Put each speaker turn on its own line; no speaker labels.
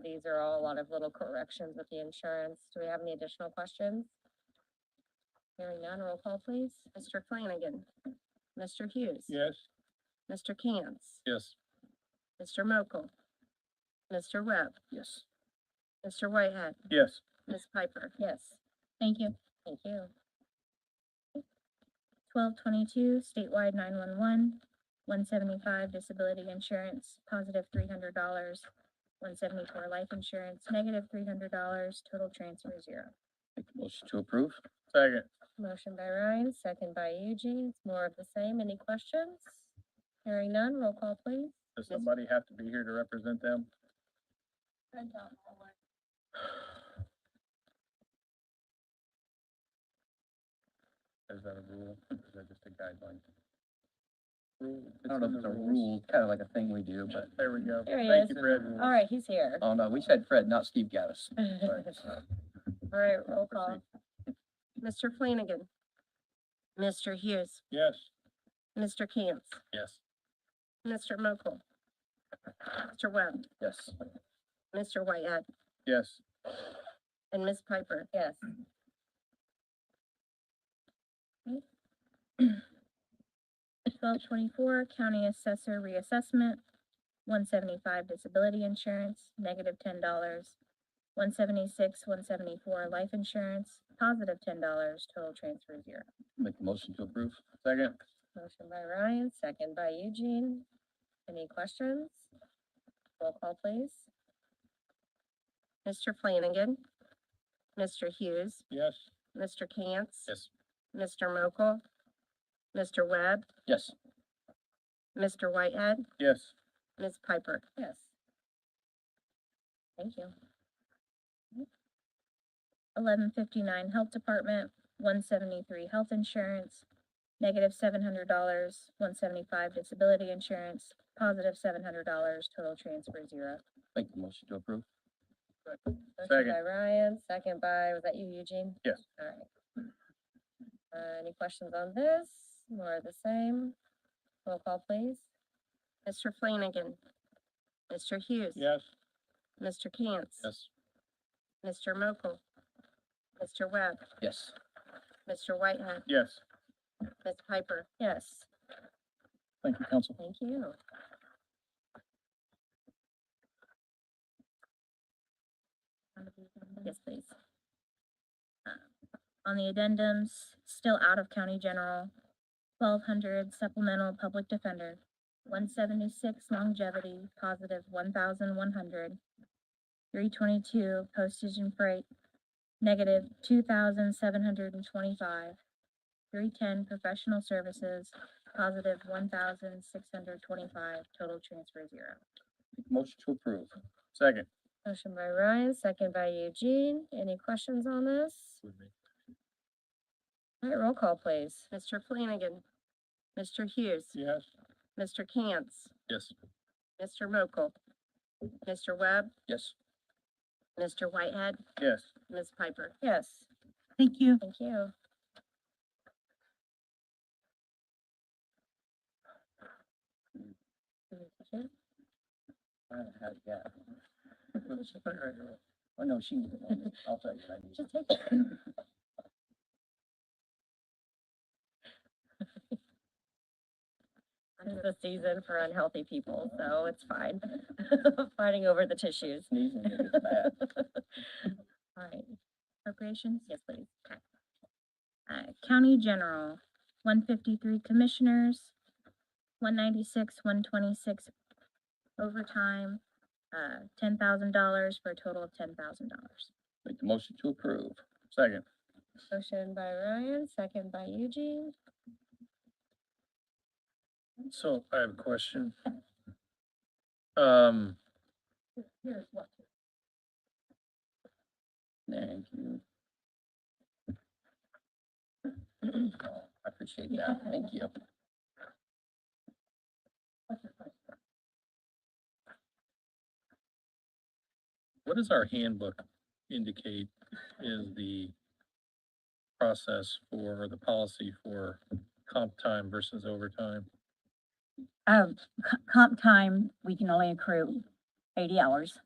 these are all a lot of little corrections with the insurance. Do we have any additional questions? Hearing none, roll call please. Mr. Flanagan. Mr. Hughes.
Yes.
Mr. Cantz.
Yes.
Mr. Mokel. Mr. Webb.
Yes.
Mr. Whitehead.
Yes.
Ms. Piper. Yes.
Thank you.
Thank you.
Twelve twenty-two, statewide nine-one-one, one seventy-five disability insurance, positive three hundred dollars. One seventy-four life insurance, negative three hundred dollars, total transfer zero.
Make the motion to approve. Second.
Motion by Ryan, second by Eugene. It's more of the same. Any questions? Hearing none, roll call please.
Does somebody have to be here to represent them? Is that a rule? Or Is that just a guideline?
I don't know if it's a rule, kind of like a thing we do, but,
There we go.
There he
Thank
is.
you, Fred.
All right, he's here.
oh no, we said Fred, not Steve Gaddis.
All right, roll call. Mr. Flanagan. Mr. Hughes.
Yes.
Mr. Cantz.
Yes.
Mr. Mokel. Mr. Webb.
Yes,
Mr. Whitehead.
Yes.
And Ms. Piper. Yes.
Twelve twenty-four, county assessor reassessment, one seventy-five disability insurance, negative ten dollars. One seventy-six, one seventy-four life insurance, positive ten dollars, total transfer zero.
make the motion to approve.
Second.
Motion by Ryan, second by Eugene. Any questions? Roll call, please. Mr. Flanagan. Mr. Hughes.
Yes.
Mr. Cantz.
Yes.
Mr. Mokel. Mr. Webb.
Yes,
Mr. Whitehead.
Yes.
Ms. Piper. Yes. Thank you.
eleven fifty-nine Health Department, one seventy-three Health Insurance, negative seven hundred dollars, one seventy-five Disability Insurance, positive seven hundred dollars, total transfer zero.
make the motion to approve.
Motion
Second.
by Ryan, second by, was that you, Eugene?
Yes.
All right. Uh, any questions on this? More of the same? Roll call, please. Mr. Flanagan. Mr. Hughes.
Yes.
Mr. Cantz.
Yes.
Mr. Mokel. Mr. Webb.
Yes,
Mr. Whitehead.
Yes.
Ms. Piper. Yes.
Thank you, council.
Thank you.
Yes, please. Uh, On the addendums, still out of county general, twelve hundred supplemental public defender, one seventy-six longevity, positive one thousand one hundred, three twenty-two postage and freight, negative two thousand seven hundred and twenty-five, three ten professional services, positive one thousand six hundred twenty-five, total transfer zero.
make the motion to approve.
Second.
Motion by Ryan, second by Eugene. Any questions on this? All right, roll call, please. Mr. Flanagan. Mr. Hughes.
Yes.
Mr. Cantz.
Yes.
Mr. Mokel. Mr. Webb.
Yes,
Mr. Whitehead.
Yes.
Ms. Piper. Yes.
Thank you.
Thank you.
I don't have that. Oh, no, she, I'll tell you, I need
Just take it. It's the season for unhealthy people, so it's fine. Fighting over the tissues.
sneezing, it gets bad.
All right, appropriations, yes, please. Okay. Uh, county general, one fifty-three commissioners, one ninety-six, one twenty-six overtime, uh, ten thousand dollars for a total of ten thousand dollars.
Make the motion to approve.
Second.
Motion by Ryan, second by Eugene.
So I have a question. Um,
Here's what.
Thank you. Oh, I appreciate that, thank you.
what does our handbook indicate is the process for, or the policy for comp time versus overtime?
Um, co- comp time, we can only accrue eighty hours